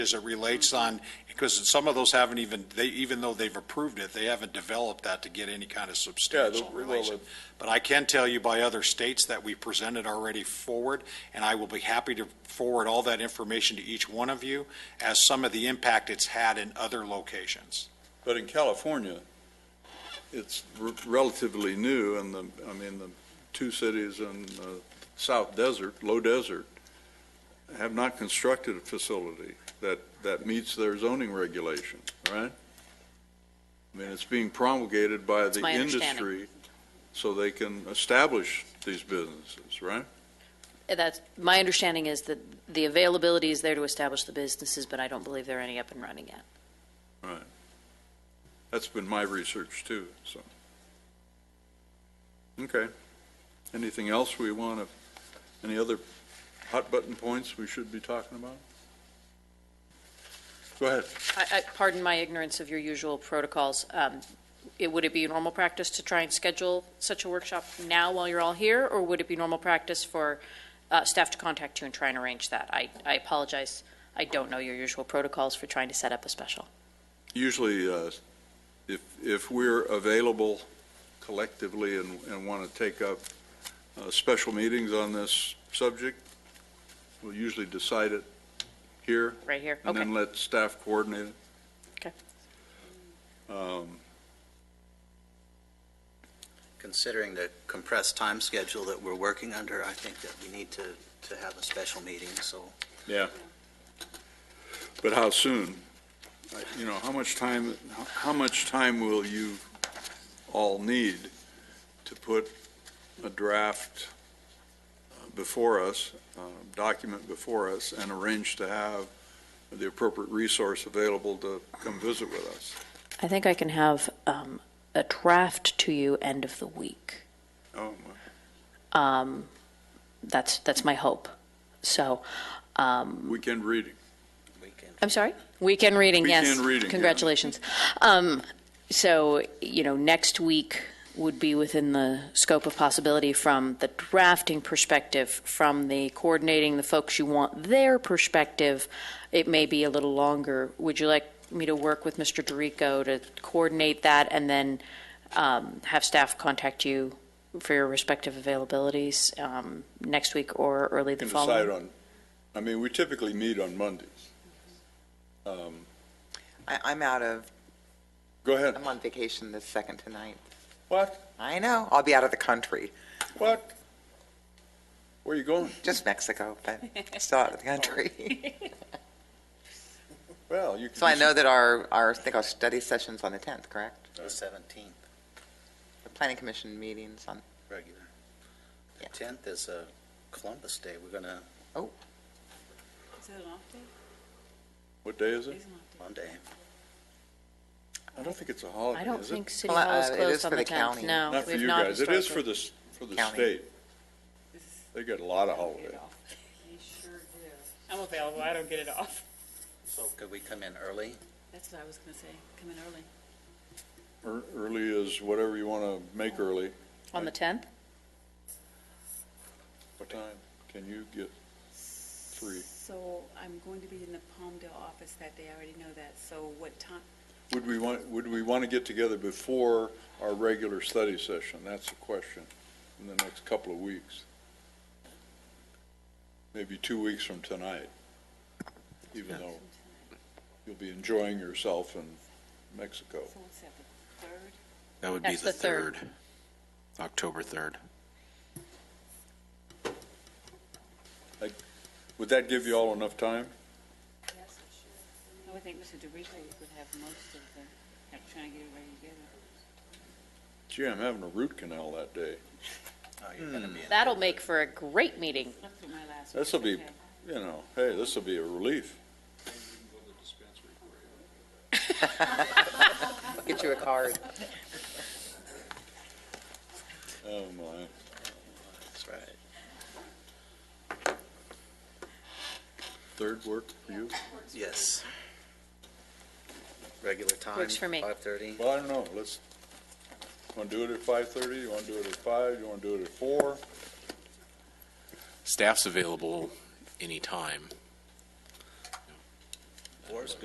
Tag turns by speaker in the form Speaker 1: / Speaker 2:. Speaker 1: as it relates on, because some of those haven't even, they, even though they've approved it, they haven't developed that to get any kind of substantial
Speaker 2: well,
Speaker 1: relation. But I can tell you by other states that we presented already forward, and I will be happy to forward all that information to each one of you as some of the impact it's had in other locations.
Speaker 2: But in California, it's r- relatively new, and the, I mean, the two cities in the South Desert, Low Desert, have not constructed a facility that, that meets their zoning regulation, right? I mean, it's being promulgated by the
Speaker 3: my understanding.
Speaker 2: industry so they can establish these businesses, right?
Speaker 3: That's, my understanding is that the availability is there to establish the businesses, but I don't believe there are any up and running yet.
Speaker 2: Right. That's been my research too, so. Okay. Anything else we want to, any other hot button points we should be talking about? Go ahead.
Speaker 3: I, I, pardon my ignorance of your usual protocols. Um, it, would it be normal practice to try and schedule such a workshop now while you're all here, or would it be normal practice for uh, staff to contact you and try and arrange that? I, I apologize. I don't know your usual protocols for trying to set up a special.
Speaker 2: Usually, uh, if, if we're available collectively and, and want to take up uh, special meetings on this subject, we'll usually decide it here.
Speaker 3: Right here?
Speaker 2: And then
Speaker 3: Okay.
Speaker 2: let staff coordinate it.
Speaker 3: Okay.
Speaker 4: Considering the compressed time schedule that we're working under, I think that we need to, to have a special meeting, so
Speaker 2: Yeah. But how soon? Like, You know, how much time, how- how much time will you all need to put a draft uh, before us, uh, document before us, and arrange to have the appropriate resource available to come visit with us?
Speaker 3: I think I can have um, a draft to you end of the week.
Speaker 2: Oh,
Speaker 3: Um, that's, that's my hope. So, um,
Speaker 2: weekend reading.
Speaker 4: we can.
Speaker 3: I'm sorry? Weekend reading, yes.
Speaker 2: Weekend reading, yeah.
Speaker 3: Congratulations. Um, so, you know, next week would be within the scope of possibility from the drafting perspective, from the coordinating the folks you want their perspective. It may be a little longer. Would you like me to work with Mr. Dorico to coordinate that and then um, have staff contact you for your respective availabilities um, next week or early the
Speaker 2: Can
Speaker 3: following?
Speaker 2: decide on, I mean, we typically meet on Mondays. Um,
Speaker 5: I, I'm out of,
Speaker 2: Go ahead.
Speaker 5: I'm on vacation this second to ninth.
Speaker 2: What?
Speaker 5: I know, I'll be out of the country,
Speaker 2: What? Where are you going?
Speaker 5: just Mexico, but still out of the country.
Speaker 2: Well, you can.
Speaker 5: So I know that our, our, I think our study session's on the tenth, correct?
Speaker 4: The 17th,
Speaker 5: The planning commission meeting's on,
Speaker 4: regular. The
Speaker 5: Yeah.
Speaker 4: 10th is uh, Columbus Day. We're going to,
Speaker 6: Is it an off day?
Speaker 2: What day is it?
Speaker 6: It's an off day.
Speaker 4: Monday.
Speaker 2: I don't think it's a holiday,
Speaker 3: I don't
Speaker 2: is it?
Speaker 3: think City
Speaker 5: Well,
Speaker 3: Hall is
Speaker 5: uh, it is
Speaker 3: closed on
Speaker 5: for
Speaker 3: the
Speaker 5: the
Speaker 3: 10th.
Speaker 5: county.
Speaker 3: No,
Speaker 2: Not for
Speaker 3: we've
Speaker 2: you
Speaker 3: not
Speaker 2: guys. It is
Speaker 3: historically.
Speaker 2: for the, s- for the
Speaker 5: County.
Speaker 2: state.
Speaker 6: This is-
Speaker 2: They get a lot of
Speaker 6: Get
Speaker 2: holidays.
Speaker 6: it off. You sure do. I'm available, I don't get it off.
Speaker 4: So could we come in early?
Speaker 6: That's what I was gonna say, come in early.
Speaker 2: Ear- Early is whatever you want to make early.
Speaker 3: On the 10th?
Speaker 2: What time can you get? Three.
Speaker 6: So I'm going to be in the Palmdale office that day, I already know that, so what time,
Speaker 2: Would we want, would we want to get together before our regular study session? That's the question in the next couple of weeks. Maybe two weeks from tonight, even though you'll be enjoying yourself in Mexico.
Speaker 6: so what's that, the third?
Speaker 7: That would be
Speaker 3: That's
Speaker 7: the
Speaker 3: the third.
Speaker 7: third, October 3rd.
Speaker 2: Would that give you all enough time?
Speaker 6: Yes, I would think Mr. DeRico would have most of the, like, trying to get it ready together.
Speaker 2: Gee, I'm having a root canal that day.
Speaker 4: Oh, you're going to be in.
Speaker 3: That'll make for a great meeting.
Speaker 6: That's what my last.
Speaker 2: This'll
Speaker 6: one's,
Speaker 2: be-
Speaker 6: okay.
Speaker 2: You know, hey, this will be a relief.
Speaker 5: I'll get you a card.
Speaker 2: Oh, my.
Speaker 4: That's right.
Speaker 2: Third work for you?
Speaker 4: Yes. Regular time.
Speaker 3: Works for me.
Speaker 4: 5:30.
Speaker 2: Well, I don't know, let's, want to do it at 5:30? You want to do it at 5? You want to do it at 4?
Speaker 7: Staff's available anytime.
Speaker 4: four is